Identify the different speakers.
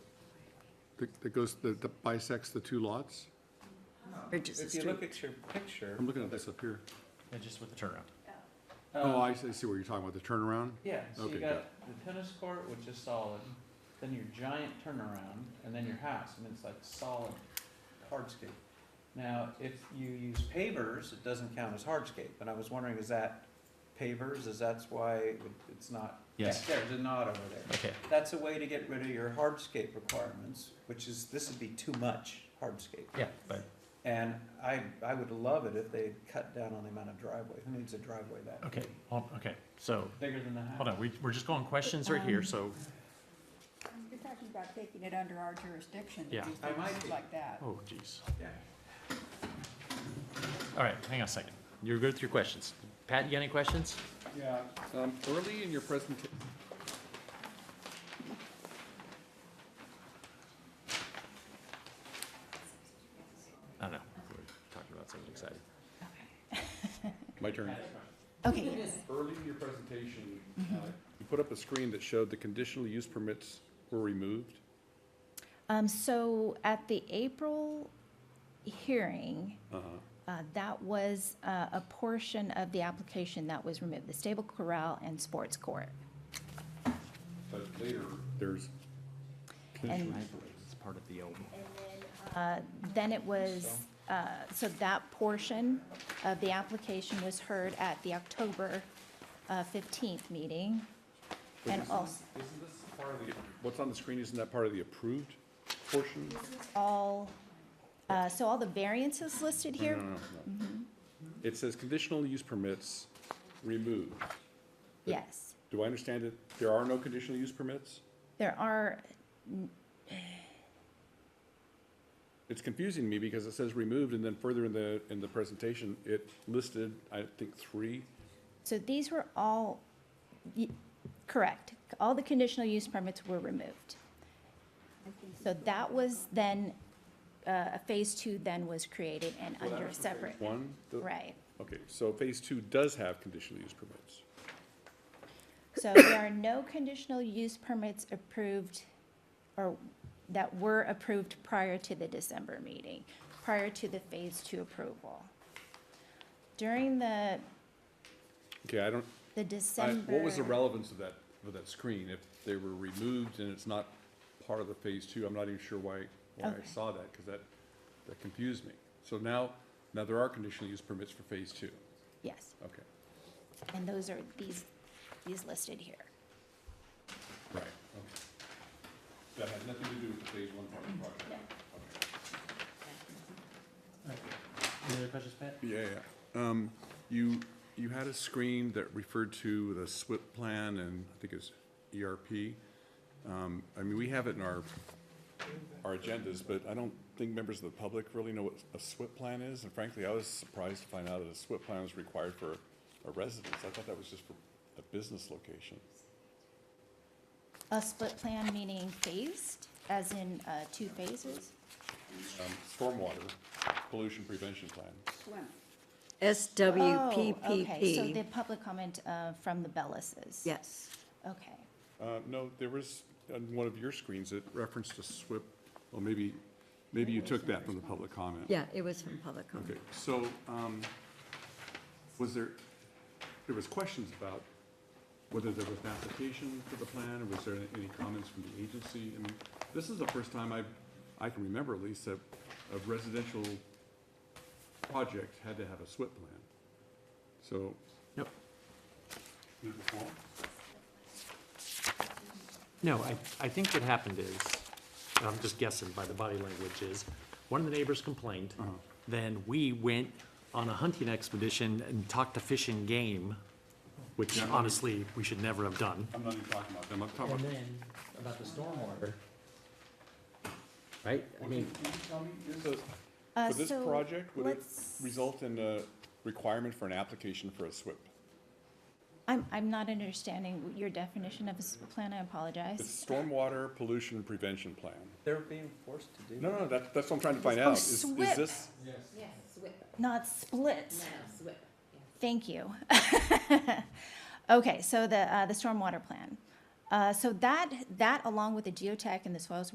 Speaker 1: that- that goes, that that bisects the two lots?
Speaker 2: Bridges the
Speaker 3: If you look
Speaker 2: street.
Speaker 3: at your picture,
Speaker 1: I'm looking at this up here.
Speaker 4: Yeah, just with the turnaround.
Speaker 1: Oh,
Speaker 3: um,
Speaker 1: I see I see what you're talking about, the turnaround?
Speaker 3: yeah, so
Speaker 1: okay,
Speaker 3: you
Speaker 1: got
Speaker 3: got the tennis court, which is solid, then your giant turnaround, and then your house, and it's like solid hardscape. Now, if you use pavers, it doesn't count as hardscape, and I was wondering, is that pavers, is that's why it- it's not back
Speaker 4: Yes.
Speaker 3: there, there's a knot over there?
Speaker 4: Okay.
Speaker 3: That's a way to get rid of your hardscape requirements, which is, this would be too much hardscape.
Speaker 4: Yeah, but,
Speaker 3: And I, I would love it if they cut down on the amount of driveway. Who needs a driveway that
Speaker 4: okay, hold, okay, so,
Speaker 3: bigger than the house?
Speaker 4: hold on, we, we're just going questions right here,
Speaker 5: Um,
Speaker 4: so,
Speaker 5: You're talking about taking it under our jurisdiction,
Speaker 4: Yeah.
Speaker 5: to do
Speaker 3: I might
Speaker 5: things
Speaker 3: be.
Speaker 5: like that.
Speaker 4: oh jeez.
Speaker 3: Yeah.
Speaker 4: All right, hang on a second. You're good with your questions. Pat, you got any questions?
Speaker 1: Yeah. Um, Early in your presentation.
Speaker 4: I don't know, we're talking about something exciting.
Speaker 1: My turn.
Speaker 5: Okay, yes.
Speaker 1: Early in your presentation, uh, you put up a screen that showed the conditional use permits were removed.
Speaker 6: Um, so at the April hearing,
Speaker 1: Uh-huh.
Speaker 6: uh, that was, uh, a portion of the application that was removed, the stable corral and sports court.
Speaker 1: But later, there's,
Speaker 6: And,
Speaker 4: It's part of the old.
Speaker 6: uh, then it was, uh, so that portion of the application was heard at the October uh, fifteenth meeting. And also,
Speaker 1: isn't this part of the, what's on the screen, isn't that part of the approved portion?
Speaker 6: all, uh, so all the variances listed here,
Speaker 1: No, no, no. It says conditional use permits removed.
Speaker 6: yes.
Speaker 1: Do I understand it? There are no conditional use permits?
Speaker 6: There are,
Speaker 1: It's confusing me because it says removed and then further in the, in the presentation, it listed, I think, three.
Speaker 6: So these were all, y- correct, all the conditional use permits were removed. So that was then, uh, a phase two then was created and
Speaker 1: Well, that
Speaker 6: under
Speaker 1: was for phase
Speaker 6: separate,
Speaker 1: One? The-
Speaker 6: right.
Speaker 1: Okay, so phase two does have conditional use permits.
Speaker 6: So there are no conditional use permits approved or that were approved prior to the December meeting, prior to the phase two approval. During the,
Speaker 1: Okay, I don't,
Speaker 6: the
Speaker 1: I,
Speaker 6: December.
Speaker 1: what was the relevance of that, of that screen? If they were removed and it's not part of the phase two, I'm not even sure why, why I
Speaker 6: Okay.
Speaker 1: saw that, because that, that confused me. So now, now there are conditional use permits for phase two.
Speaker 6: Yes,
Speaker 1: Okay,
Speaker 6: and those are these, these listed here.
Speaker 1: right, okay. That had nothing to do with the phase one part of the project? Okay.
Speaker 4: Any other questions, Pat?
Speaker 1: Yeah, yeah. Um, you, you had a screen that referred to the SWIP plan and I think it's ERP. Um, I mean, we have it in our, our agendas, but I don't think members of the public really know what a SWIP plan is. And frankly, I was surprised to find out that a SWIP plan was required for a residence. I thought that was just for a business location.
Speaker 6: A split plan meaning phased, as in uh, two phases?
Speaker 1: Um, stormwater pollution prevention plan.
Speaker 5: Swim.
Speaker 6: Oh, okay, so the
Speaker 2: SWPPP.
Speaker 6: public comment uh, from the Bellises?
Speaker 2: Yes.
Speaker 6: Okay,
Speaker 1: Uh, no, there was, on one of your screens, it referenced a SWIP, well, maybe, maybe you took that from the public comment.
Speaker 2: Yeah, it was from public comment.
Speaker 1: Okay, so, um, was there, there was questions about whether there was an application for the plan, or was there any comments from the agency? I mean, this is the first time I, I can remember at least, that a residential project had to have a SWIP plan. So.
Speaker 4: Yep.
Speaker 1: Did it before?
Speaker 4: No, I, I think what happened is, and I'm just guessing by the body language, is one of the neighbors complained. Then we went on a hunting expedition and talked to fish and game, which honestly, we should never have done.
Speaker 1: I'm not even talking about them, I'm talking
Speaker 7: And
Speaker 1: about.
Speaker 7: then about the stormwater. Right, I mean,
Speaker 6: Uh,
Speaker 1: For this
Speaker 6: so
Speaker 1: project, would it
Speaker 6: let's-
Speaker 1: result in a requirement for an application for a SWIP?
Speaker 6: I'm, I'm not understanding your definition of a split plan, I
Speaker 1: It's
Speaker 6: apologize.
Speaker 1: stormwater pollution prevention plan.
Speaker 3: They're being forced to do
Speaker 1: No,
Speaker 3: that.
Speaker 1: no, that, that's what I'm trying to find out. Is, is
Speaker 6: SWIP.
Speaker 1: this,
Speaker 6: Not split, thank you. Okay, so the, uh, the stormwater plan. Uh, So that, that along with the geotech and the soils